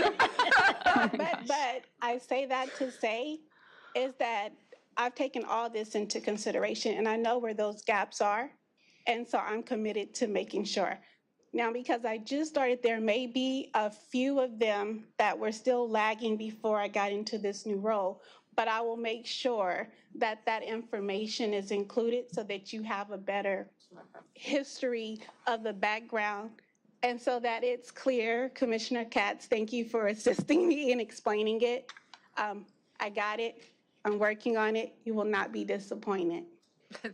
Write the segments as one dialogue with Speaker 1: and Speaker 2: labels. Speaker 1: Oh
Speaker 2: I say that to say is that I've taken all this into consideration and I know where those gaps are. And so I'm committed to making sure. Now, because I just started, there may be a few of them that were still lagging before I got into this new role. But I will make sure that that information is included so that you have a better history of the background. And so that it's clear, Commissioner Katz, thank you for assisting me in explaining it. Um, I got it. I'm working on it. You will not be disappointed.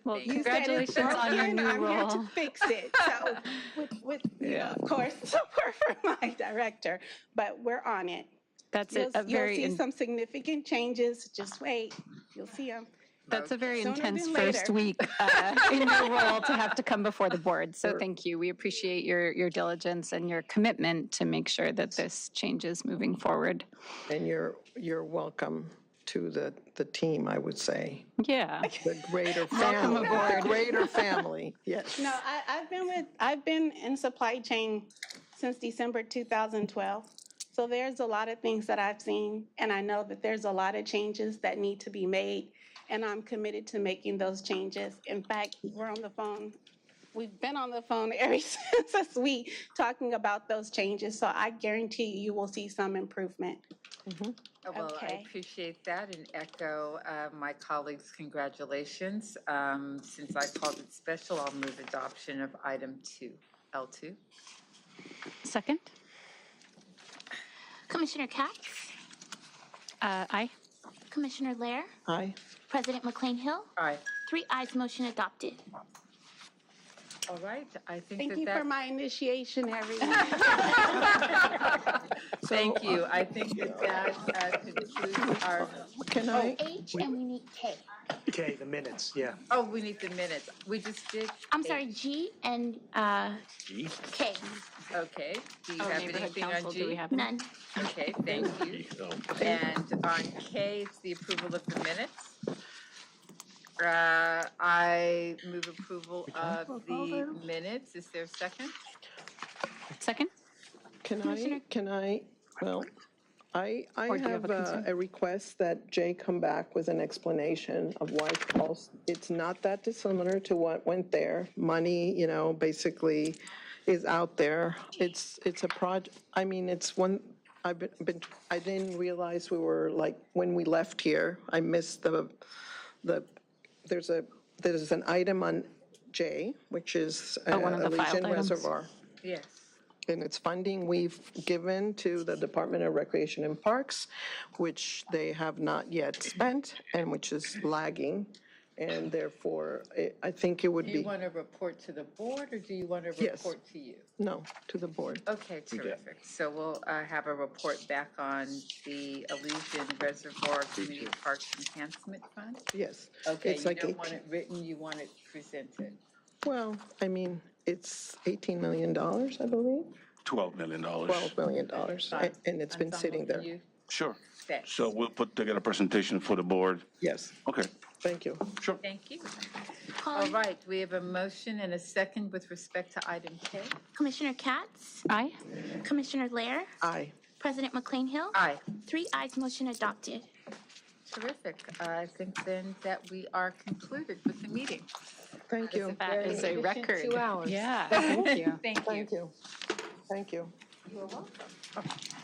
Speaker 1: Well,
Speaker 2: You said it's
Speaker 1: congratulations on your
Speaker 2: broken,
Speaker 1: new
Speaker 2: I'm here
Speaker 1: role.
Speaker 2: to fix it. So with, with, you know, of course, support from my director, but we're on it.
Speaker 1: That's
Speaker 2: You'll,
Speaker 1: a, a
Speaker 2: you'll
Speaker 1: very,
Speaker 2: see
Speaker 1: in-
Speaker 2: some significant changes. Just wait. You'll see them.
Speaker 1: that's a very
Speaker 2: sooner
Speaker 1: intense
Speaker 2: than
Speaker 1: first
Speaker 2: later.
Speaker 1: week uh, in your role to have to come before the board. So thank you. We appreciate your, your diligence and your commitment to make sure that this changes moving forward.
Speaker 3: And you're, you're welcome to the, the team, I would say.
Speaker 1: Yeah.
Speaker 3: The greater family. The
Speaker 1: aboard.
Speaker 3: greater family, yes.
Speaker 2: No, I, I've been with, I've been in supply chain since December 2012. So there's a lot of things that I've seen, and I know that there's a lot of changes that need to be made, and I'm committed to making those changes. In fact, we're on the phone, we've been on the phone ever since this week talking about those changes. So I guarantee you, you will see some improvement.
Speaker 4: Oh, Well, I
Speaker 2: Okay.
Speaker 4: appreciate that and echo uh, my colleagues' congratulations. Um, Since I called it special, I'll move adoption of item two, L2.
Speaker 1: Second?
Speaker 5: Commissioner Katz,
Speaker 1: Uh, Aye.
Speaker 5: Commissioner Lair,
Speaker 3: Aye.
Speaker 5: President McLean Hill,
Speaker 4: All right,
Speaker 5: three ayes, motion adopted.
Speaker 4: all right, I think
Speaker 2: Thank you
Speaker 4: that
Speaker 2: for
Speaker 4: that,
Speaker 2: my initiation, everyone.
Speaker 4: thank you. I think that that uh, concludes our,
Speaker 3: Can I,
Speaker 5: H and we need K.
Speaker 6: Okay, the minutes, yeah.
Speaker 4: oh, we need the minutes. We just did.
Speaker 5: I'm sorry, G and uh, K,
Speaker 4: Okay, do you have anything on G?
Speaker 1: do we have?
Speaker 5: none.
Speaker 4: Okay, thank you. And on K, it's the approval of the minutes. Uh, I move approval of the minutes. Is there a second?
Speaker 1: Second?
Speaker 3: can I, can I, well, I, I
Speaker 1: Or do you
Speaker 3: have
Speaker 1: have a
Speaker 3: uh,
Speaker 1: concern?
Speaker 3: a request that Jay come back with an explanation of why Paul's- it's not that dissimilar to what went there. Money, you know, basically is out there. It's, it's a project, I mean, it's one, I've been- been, I didn't realize we were, like, when we left here, I missed the, the, there's a, there's an item on J, which is uh,
Speaker 1: Oh, one of the filed
Speaker 3: Elysian
Speaker 1: items.
Speaker 3: Reservoir.
Speaker 4: Yes.
Speaker 3: And it's funding we've given to the Department of Recreation and Parks, which they have not yet spent and which is lagging. And therefore, I- I think it would
Speaker 4: Do you
Speaker 3: be,
Speaker 4: want to report to the board or do you want to
Speaker 3: Yes.
Speaker 4: report to you?
Speaker 3: no, to the board.
Speaker 4: Okay, terrific. So we'll uh, have a report back on the Elysian Reservoir Community Parks Enhancement Fund.
Speaker 3: Yes.
Speaker 4: Okay,
Speaker 3: It's
Speaker 4: you
Speaker 3: like
Speaker 4: don't
Speaker 3: eight-
Speaker 4: want it written, you want it presented.
Speaker 3: Well, I mean, it's $18 million, I believe,
Speaker 7: $12 million.
Speaker 3: $12 million. a- And it's been
Speaker 4: Ensemble,
Speaker 3: sitting
Speaker 4: can
Speaker 3: there.
Speaker 4: you-
Speaker 7: Sure.
Speaker 4: Thanks.
Speaker 7: So we'll put together a presentation for the board.
Speaker 3: Yes,
Speaker 7: Okay,
Speaker 3: thank you.
Speaker 7: sure.
Speaker 4: Thank you. All
Speaker 5: Calling
Speaker 4: right, we have a motion and a second with respect to item K.
Speaker 5: Commissioner Katz,
Speaker 1: Aye.
Speaker 5: Commissioner Lair,
Speaker 3: Aye.
Speaker 5: President McLean Hill,
Speaker 4: Aye,
Speaker 5: three ayes, motion adopted.
Speaker 4: terrific. I think then that we are concluded with the meeting.
Speaker 3: Thank you.
Speaker 1: That is a
Speaker 4: efficient
Speaker 1: record.
Speaker 4: two hours.
Speaker 1: Yeah, thank you.
Speaker 4: Thank you.
Speaker 3: Thank you. Thank you.
Speaker 4: You're welcome.